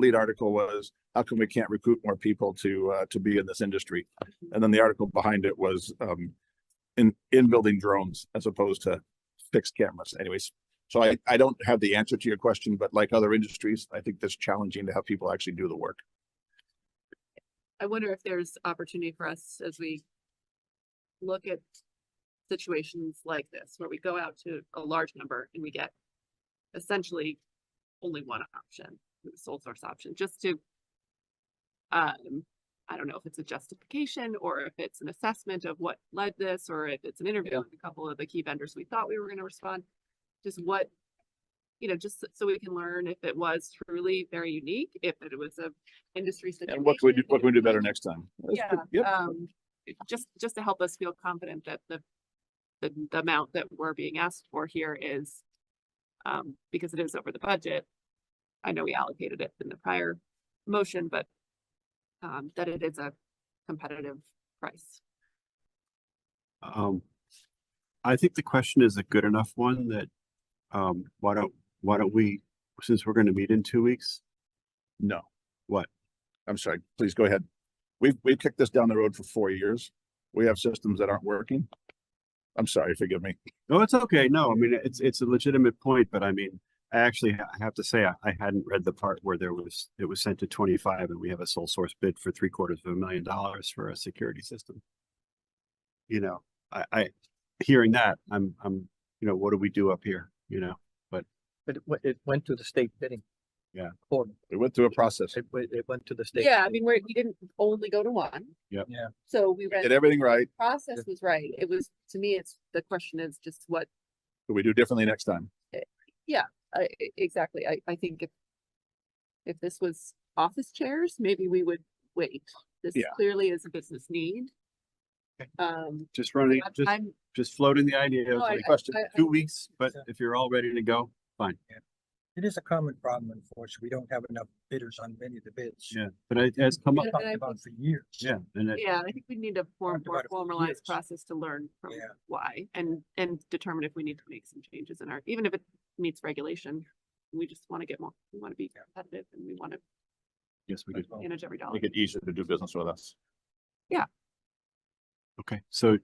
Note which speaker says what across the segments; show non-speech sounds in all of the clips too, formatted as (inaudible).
Speaker 1: lead article was, how come we can't recruit more people to, uh, to be in this industry? And then the article behind it was, um, in, in building drones as opposed to fixed cameras anyways. So I, I don't have the answer to your question, but like other industries, I think that's challenging to have people actually do the work.
Speaker 2: I wonder if there's opportunity for us as we look at situations like this, where we go out to a large number and we get essentially only one option, the sole source option, just to um, I don't know if it's a justification or if it's an assessment of what led this, or if it's an interview with a couple of the key vendors we thought we were gonna respond. Just what, you know, just so we can learn if it was truly very unique, if it was a industry situation.
Speaker 1: And what can we do, what
Speaker 2: if
Speaker 1: can we do
Speaker 2: it was-
Speaker 1: better next time? That's
Speaker 2: yeah,
Speaker 1: good. Yep,
Speaker 2: um, it- just, just to help us feel confident that the, the, the amount that we're being asked for here is, um, because it is over the budget. I know we allocated it in the prior motion, but, um, that it is a competitive price.
Speaker 3: Um, I think the question is a good enough one that, um, why don't, why don't we, since we're gonna meet in two weeks?
Speaker 1: no.
Speaker 3: What?
Speaker 1: I'm sorry, please go ahead. We've, we've kicked this down the road for four years. We have systems that aren't working. I'm sorry, forgive me.
Speaker 3: No, it's okay. No, I mean, it's, it's a legitimate point, but I mean, I actually, ha- I have to say, I, I hadn't read the part where there was, it was sent to twenty-five and we have a sole source bid for three quarters of a million dollars for a security system. You know, I, I, hearing that, I'm, I'm, you know, what do we do up here, you know?
Speaker 4: But it, went- it went to the state bidding.
Speaker 3: Yeah.
Speaker 4: Or
Speaker 1: We went through a process.
Speaker 4: it, went- it went to the state.
Speaker 2: Yeah, I
Speaker 4: bidding.
Speaker 2: mean, we're, we didn't only go to one.
Speaker 3: Yep.
Speaker 4: Yeah.
Speaker 2: So we ran,
Speaker 1: Did
Speaker 2: the
Speaker 1: everything right.
Speaker 2: process was right. It was, to me, it's, the question is just what
Speaker 1: Could we do differently next time?
Speaker 2: I, I- exactly. I, I think if, if this was office chairs, maybe we would wait. This
Speaker 1: Yeah.
Speaker 2: clearly is a business need.
Speaker 3: Okay.
Speaker 2: Um,
Speaker 3: Just running,
Speaker 2: I'm-
Speaker 3: just,
Speaker 2: I'm,
Speaker 3: just floating the idea of
Speaker 2: No, I-
Speaker 3: like,
Speaker 2: I- I- I-
Speaker 3: two weeks, but
Speaker 4: Yeah.
Speaker 3: if you're all ready to go, fine.
Speaker 4: It is a common problem, unfortunately. We don't have enough bidders on many of the bids.
Speaker 3: Yeah, but it has come up,
Speaker 2: And-
Speaker 4: Talked
Speaker 2: and I
Speaker 4: about
Speaker 2: think-
Speaker 4: for years.
Speaker 3: yeah, and it,
Speaker 2: yeah, I think we need a more,
Speaker 4: Talked
Speaker 2: more
Speaker 4: about it for years.
Speaker 2: formalized process to learn from
Speaker 4: Yeah.
Speaker 2: why and, and determine if we need to make some changes in our, even if it meets regulation. We just want to get more, we want to be
Speaker 4: Yeah.
Speaker 2: competitive and we want to
Speaker 3: yes, we
Speaker 4: as
Speaker 3: did.
Speaker 4: well.
Speaker 2: manage every dollar.
Speaker 1: Make it easier to do business with us.
Speaker 3: Okay, so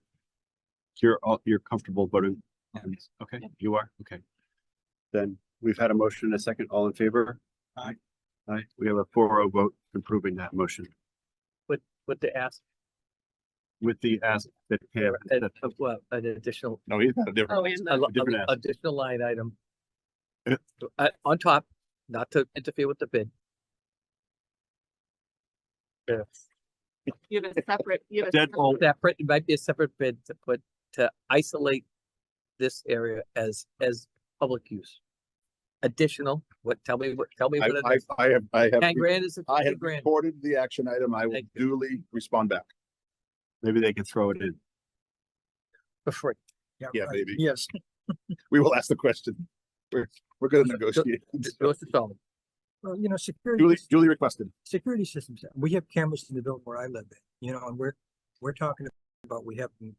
Speaker 3: you're all, you're comfortable voting
Speaker 4: Yeah.
Speaker 3: on this? Okay,
Speaker 2: Yeah.
Speaker 3: you are, okay. Then we've had a motion and a second, all in favor?
Speaker 4: Aye.
Speaker 3: Aye, we have a four oh vote approving that motion
Speaker 4: But the ask,
Speaker 3: with the ask that, yeah,
Speaker 4: an-
Speaker 3: that-
Speaker 4: uh, well, an additional,
Speaker 1: No, he's got a different.
Speaker 2: Oh, and
Speaker 4: a
Speaker 2: the,
Speaker 4: lo-
Speaker 3: different
Speaker 4: a-
Speaker 3: ask.
Speaker 4: additional line item.
Speaker 3: Yeah.
Speaker 4: to- uh, on top, not to interfere with the bid.
Speaker 2: you have
Speaker 4: (laughs)
Speaker 2: a separate, you have a. separate-
Speaker 3: deadbolt,
Speaker 4: That print it might be a separate bid to put, to isolate this area as, as public use. Additional, what, tell me, what? tell me
Speaker 1: I,
Speaker 4: what it
Speaker 1: I,
Speaker 4: is.
Speaker 1: I have, I have,
Speaker 4: Ten grand is a
Speaker 1: I have
Speaker 4: fifty grand.
Speaker 1: recorded the action item. I will
Speaker 4: Thank you.
Speaker 1: duly respond back.
Speaker 3: maybe they can throw it in.
Speaker 4: For free.
Speaker 1: Yeah, maybe.
Speaker 4: Yes.
Speaker 1: We will ask the question. We're, we're gonna negotiate.
Speaker 4: Yours is all.
Speaker 5: Well, you
Speaker 1: Duly,
Speaker 5: know, security, sys-
Speaker 1: duly requested.
Speaker 5: security systems, we have cameras in the building where I live in, you know, and we're, we're talking about, we have them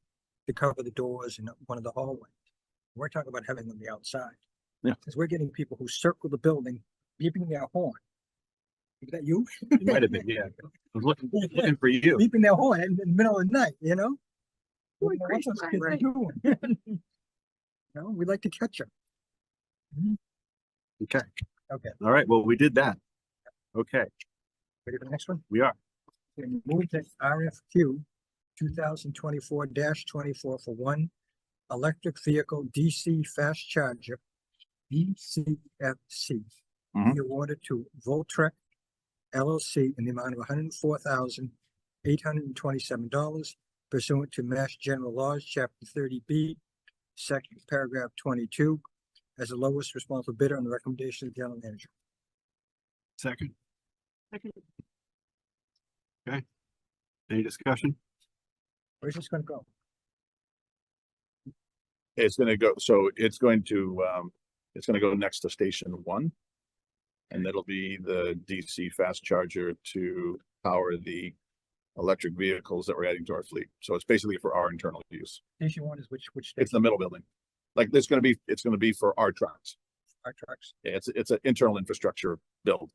Speaker 5: to cover the doors in one of the hallways. We're talking about having them the outside.
Speaker 1: Yeah.
Speaker 5: Cause we're getting people who circle the building, beeping their horn. Is that you?
Speaker 3: It might have been, yeah. I was looking, looking for you.
Speaker 5: (laughs) Beeping their horn in the middle of the night, you know?
Speaker 2: Boy,
Speaker 5: You know, what's
Speaker 2: gracious,
Speaker 5: those kids
Speaker 2: Ira.
Speaker 5: doing? (laughs) You know, we like to catch them.
Speaker 3: Okay.
Speaker 5: Okay.
Speaker 3: All right, well, we did that. Okay,
Speaker 5: Ready for the next one?
Speaker 3: we are.
Speaker 5: and move that RFQ two thousand twenty-four twenty-four for one electric vehicle DC fast charger, DCFC.
Speaker 1: Mhm.
Speaker 3: Mm-hmm.
Speaker 5: Be awarded to Voltrek LLC in the amount of hundred and four thousand eight hundred and twenty-seven dollars pursuant to Mass General Laws, Chapter thirty B, Section Paragraph twenty-two, as the lowest responsible bidder on the recommendation of the general manager.
Speaker 3: Second,
Speaker 2: I can-
Speaker 3: any discussion?
Speaker 5: Where's this gonna go?
Speaker 1: It's gonna go, so it's going to, um, it's gonna go next to station one. And that'll be the DC fast charger to power the electric vehicles that we're adding to our fleet. So it's basically for our internal use.
Speaker 5: Station one is which, which
Speaker 1: It's
Speaker 5: station?
Speaker 1: the middle building. Like, there's gonna be, it's gonna be for our trucks.
Speaker 5: Our trucks.
Speaker 1: Yeah, It's, it's an internal infrastructure build.